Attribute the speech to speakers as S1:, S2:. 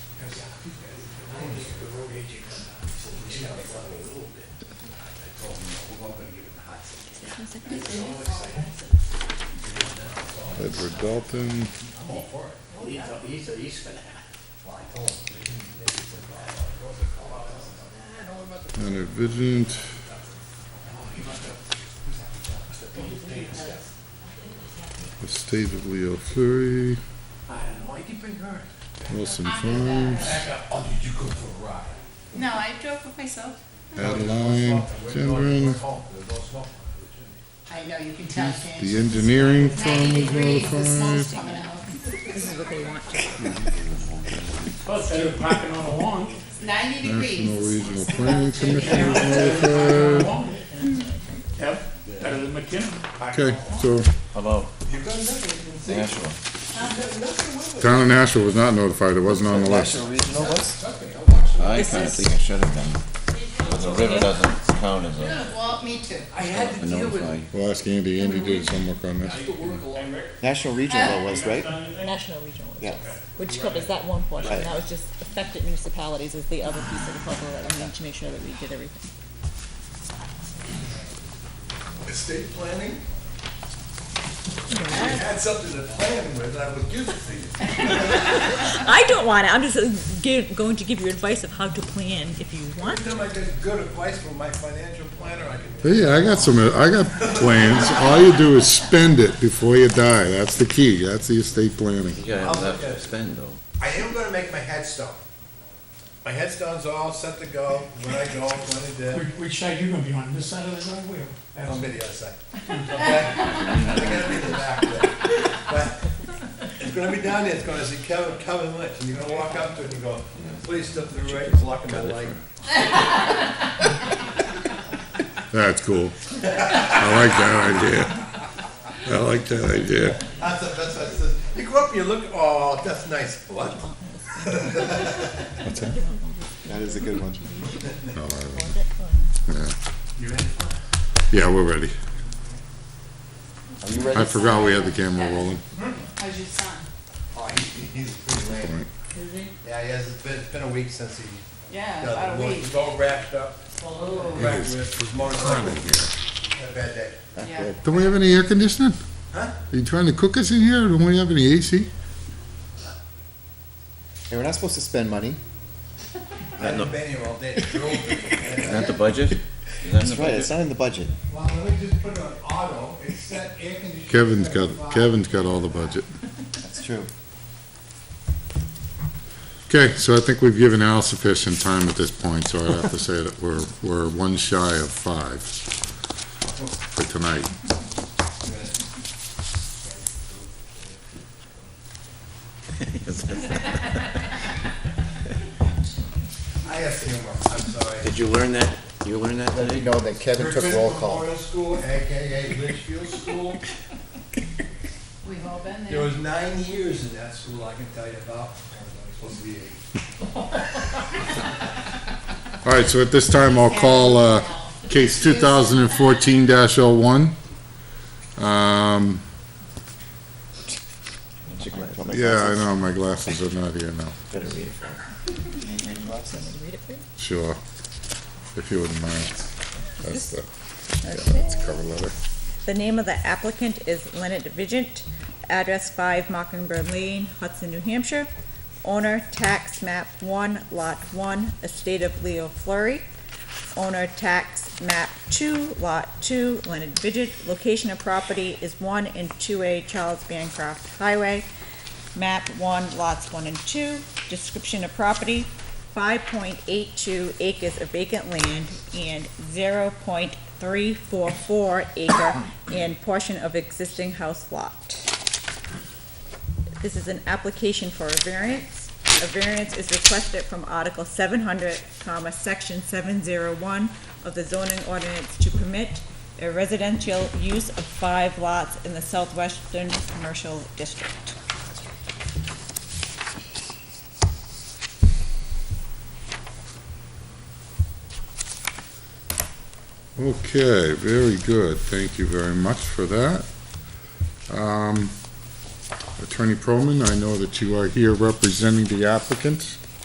S1: road agent come down, he said, he's gotta flood a little bit. I told him, no, we're not gonna give it the hot seat.
S2: Edward Dalton,
S1: I'm all for it. He thought, he said, he's for that. Well, I told him, he didn't, he said, well, I told him, call out. I said, nah, I don't know about the,
S2: Leonard Vigent,
S1: oh, he must have, who's that? Must have paid, paid his stuff.
S2: Estate of Leo Fleury,
S1: I don't know, why'd you bring her?
S2: Wilson
S3: I knew that.
S2: Farms,
S1: Back up, oh, did you go for a ride?
S3: No, I drove with myself.
S2: Adeline Gendron,
S3: I know, you can tell, can't
S2: the
S3: you?
S2: engineering firm
S3: Ninety
S2: was
S3: degrees, the smoke's
S2: notified.
S3: coming out.
S4: This is what they want.
S1: Plus, they were parking on the lawn.
S3: Ninety
S2: National
S3: degrees.
S2: Regional Planning Commission was notified.
S1: Yep, better than McKinnon.
S2: Okay, so
S5: Hello. You've got nothing.
S2: town of Nashville was not notified, it wasn't on the list.
S5: National regional list? I
S4: This
S5: kinda
S4: is-
S5: think it should have been, but the river doesn't count as a
S3: Well, me too.
S1: I had to deal with.
S5: notify.
S2: We'll ask Andy, Andy did some work on this.
S6: National regional was, right?
S4: National regional.
S6: Yeah.
S4: Which covers that one portion,
S6: Right.
S4: that was just affected municipalities is the other piece of the puzzle that we need to make sure that we did everything.
S7: estate planning? We had something to plan with, I would give it to you.
S4: I don't want it, I'm just uh, gi- going to give you advice of how to plan if you want.
S7: Every time I get good advice from my financial planner, I can,
S2: Hey, I got some, I got plans, all you do is spend it before you die, that's the key, that's the estate planning.
S5: You gotta
S7: I'll
S5: have
S7: look
S5: enough
S7: at
S5: to
S7: it.
S5: spend though.
S7: I am gonna make my headstone. My headstone's all set to go, when I go, when I did,
S1: Which, which side you gonna be on, this side of the driveway or? that
S7: I'm
S1: side?
S7: gonna be the other side. Okay? I'm gonna be in the back there. But It's gonna be down there, it's gonna say Kevin, Kevin Lynch, and you're gonna walk up to it and you go, please step to the right, it's blocking my light.
S2: That's cool. I like that idea. I like that idea.
S7: That's, a- that's, that's, you go up, you look, oh, that's nice, what?
S6: That is a good one.
S2: No, I-
S7: You ready?
S2: Yeah, we're ready.
S5: Are you ready?
S2: I forgot we had the camera rolling.
S3: How's your son?
S7: Oh, he, he's pretty lame.
S3: Is he?
S7: Yeah, he has, it's been, it's been a week since he.
S3: Yeah,
S7: got
S3: about a
S7: the-
S3: week.
S7: He's all wrapped up,
S3: Oh,
S7: wrapped with his motorcycle. Had a bad day.
S3: yeah.
S2: Don't we have any air conditioning?
S7: Huh?
S2: Are you trying to cook us in here? Don't we have any AC?
S6: Hey, we're not supposed to spend money.
S7: I haven't been here all day, It drove.
S5: Is that the budget? Is that in the
S6: That's right, it's
S5: budget?
S6: not in the budget.
S1: Well, let me just put it on auto, it's set air conditioning.
S2: Kevin's got, Kevin's got all the budget.
S6: That's true.
S2: Okay, so I think we've given Al sufficient time at this point, so I have to say that we're, we're one shy of five for tonight.
S7: I have humor, I'm sorry.
S5: Did you learn that? You learned that
S6: Let me
S5: today?
S6: know that Kevin took
S7: Griffin
S6: roll call.
S7: Memorial School, AKA Litchfield School.
S3: We've all been
S7: There
S3: there.
S7: was nine years in that school, I can tell you about. It's Supposed to be eight.
S2: All right, so at this time, I'll call, uh, case two thousand and fourteen dash oh one. Um, yeah, I know, my glasses are not here now.
S6: Better read it first.
S4: Read it for you?
S2: Sure, if you wouldn't mind. That's the, yeah, that's
S4: Okay.
S2: the cover letter.
S4: The name of the applicant is Leonard Vigent, address five Mockingbird Lane, Hudson, New Hampshire. Owner, tax map one, lot one, estate of Leo Flurry. Owner, tax map two, lot two, Leonard Vigent. Location of property is one and two A Charles Bancroft Highway. Map one, lots one and two. Description of property, five point eight two acres of vacant land and zero point three four four acre and portion of existing house lot. This is an application for a variance. A variance is requested from Article seven hundred, comma, section seven zero one of the zoning ordinance to permit a residential use of five lots in the southwestern commercial district.
S2: Okay, very good. Thank you very much for that. Um, Attorney Proman, I know that you are here representing the applicant.